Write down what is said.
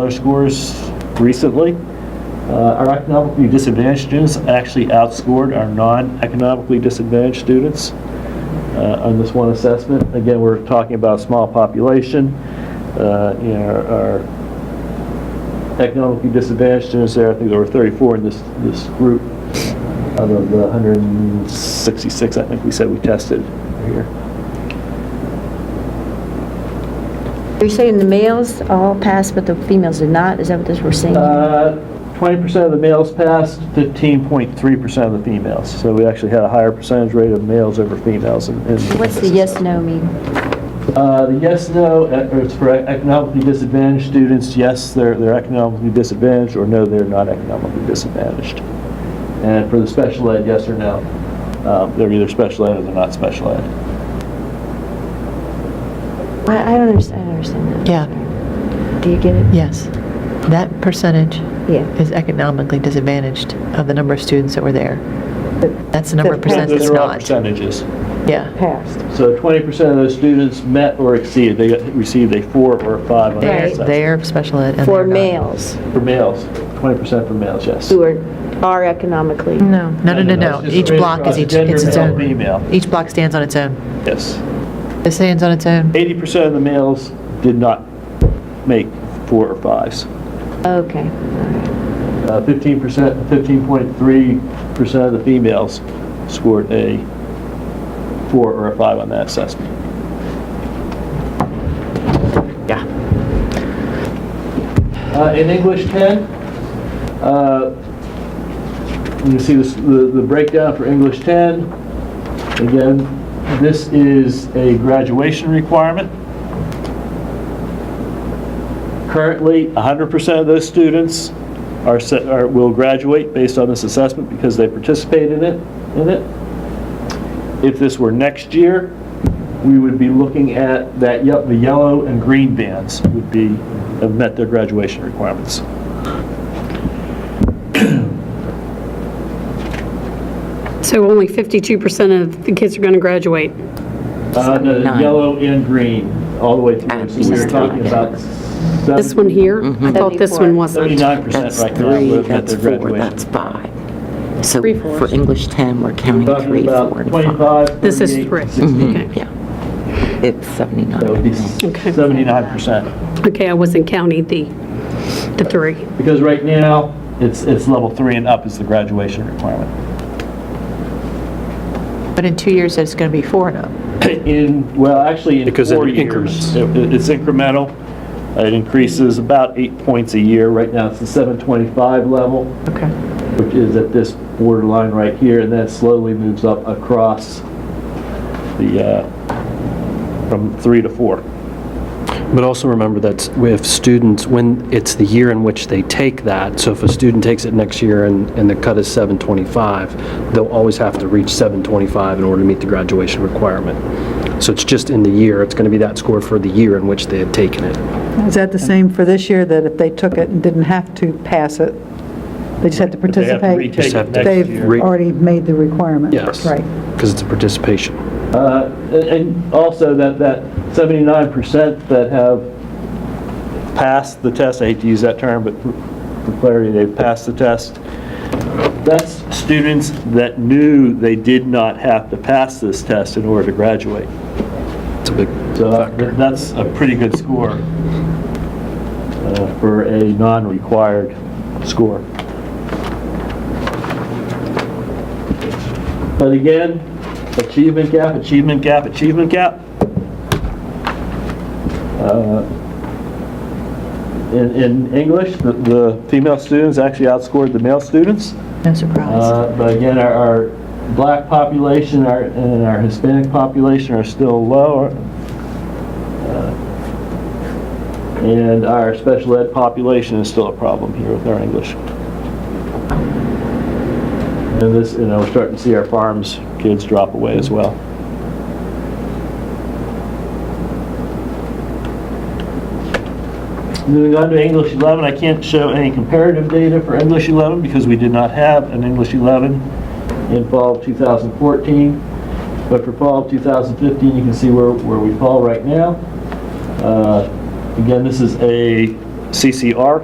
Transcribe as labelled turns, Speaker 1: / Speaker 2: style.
Speaker 1: Our scores recently, uh, our economically disadvantaged students actually outscored our non-economically disadvantaged students uh, on this one assessment. Again, we're talking about a small population, uh, you know, our- our economically disadvantaged students there, I think there were 34 in this, this group, out of the 166, I think we said we tested here.
Speaker 2: You're saying the males all passed, but the females did not? Is that what this we're seeing?
Speaker 1: Uh, 20% of the males passed, 15.3% of the females. So we actually had a higher percentage rate of males over females in. in-
Speaker 2: What's the yes, no mean?
Speaker 1: Uh, The yes, no, uh, it's for economically disadvantaged students, yes, they're, they're economically disadvantaged, or no, they're not economically disadvantaged. And for the special ed, yes or no, Um, they're either special ed or they're not special ed.
Speaker 2: I, I don't understand, I don't understand that. Yeah. Do you get it?
Speaker 3: Yes. That percentage
Speaker 2: Yeah.
Speaker 3: is economically disadvantaged of the number of students that were there. That's the number of
Speaker 2: That-
Speaker 3: percent
Speaker 1: Those
Speaker 3: that's
Speaker 1: are all
Speaker 3: not.
Speaker 1: percentages.
Speaker 3: Yeah.
Speaker 2: Passed.
Speaker 1: So 20% of those students met or exceeded, they got- received a four or a five on their
Speaker 2: Right.
Speaker 1: assessment.
Speaker 3: They're special ed and they're
Speaker 4: For
Speaker 3: not.
Speaker 4: males
Speaker 1: For males, 20% for males, yes.
Speaker 4: who are, are economically.
Speaker 2: Mm.
Speaker 3: No, no, no, no.
Speaker 1: it's
Speaker 3: Each
Speaker 1: just
Speaker 3: block is each,
Speaker 1: gender,
Speaker 3: it's its
Speaker 1: male,
Speaker 3: own.
Speaker 1: Female,
Speaker 3: Each block stands on its own.
Speaker 1: yes.
Speaker 3: It stands on its own.
Speaker 1: 80% of the males did not make four or fives.
Speaker 2: Okay.
Speaker 1: Uh, 15%, 15.3% of the females scored a four or a five on that assessment. Yeah. In English 10, uh, you can see this- the the breakdown for English 10. Again, this is a graduation requirement. Currently, 100% of those students are, se- are, will graduate based on this assessment because they participated in it, in it. If this were next year, we would be looking at that, ye- the yellow and green bands would be, have met their graduation requirements. Uh,
Speaker 5: So only 52% of the kids are going to graduate.
Speaker 1: Uh, the yellow and green, all the way through, so we were talking about.
Speaker 5: This one here, I thought this one wasn't.
Speaker 1: 79%
Speaker 6: That's
Speaker 1: right now
Speaker 6: three,
Speaker 1: would have met
Speaker 6: that's
Speaker 1: their
Speaker 6: four,
Speaker 1: graduation.
Speaker 6: that's five. So
Speaker 5: Three fours.
Speaker 6: for English 10, we're counting
Speaker 1: Talking
Speaker 6: three,
Speaker 1: about
Speaker 6: four, and
Speaker 1: 25,
Speaker 6: five.
Speaker 5: This is
Speaker 1: 38,
Speaker 5: three.
Speaker 1: 60.
Speaker 5: Okay.
Speaker 6: Yeah. It's
Speaker 1: That would
Speaker 6: 79.
Speaker 1: be
Speaker 5: Okay.
Speaker 1: 79%.
Speaker 5: Okay, I wasn't counting the, the three.
Speaker 1: Because right now, it's, it's level three and up is the graduation requirement.
Speaker 3: But in two years, it's going to be four and up.
Speaker 1: In, well, actually, in
Speaker 7: Because it
Speaker 1: four years.
Speaker 7: increments.
Speaker 1: it- it- It's incremental. It increases about eight points a year. Right now, it's the 725 level,
Speaker 3: Okay.
Speaker 1: which is at this borderline right here, and then it slowly moves up across the, uh, from three to four.
Speaker 7: But also remember that if students, when it's the year in which they take that, so if a student takes it next year and, and the cut is 725, they'll always have to reach 725 in order to meet the graduation requirement. So it's just in the year, it's going to be that score for the year in which they had taken it.
Speaker 8: Is that the same for this year, that if they took it and didn't have to pass it, they just had to
Speaker 1: But they have to
Speaker 8: participate?
Speaker 1: retake it
Speaker 7: have to
Speaker 1: next year.
Speaker 8: They've already made the requirement.
Speaker 7: Yes.
Speaker 8: Right.
Speaker 7: Because it's a participation.
Speaker 1: Uh, And and also that, that 79% that have passed the test, I hate to use that term, but for clarity, they've passed the test, that's students that knew they did not have to pass this test in order to graduate.
Speaker 7: It's a big
Speaker 1: So uh,
Speaker 7: factor.
Speaker 1: that's a pretty good score uh, for a non-required score. But again, achievement gap, achievement gap, achievement gap. Uh, In, in English, the- the female students actually outscored the male students.
Speaker 3: No surprise.
Speaker 1: Uh, But again, our, our black population our- and our Hispanic population are still lower. Uh, And our special ed population is still a problem here with our English. And this, you know, we're starting to see our farms kids drop away as well. Moving on to English 11, I can't show any comparative data for English 11 because we did not have an English 11 in fall of 2014. But for fall of 2015, you can see where, where we fall right now. Uh, Again, this is a CCR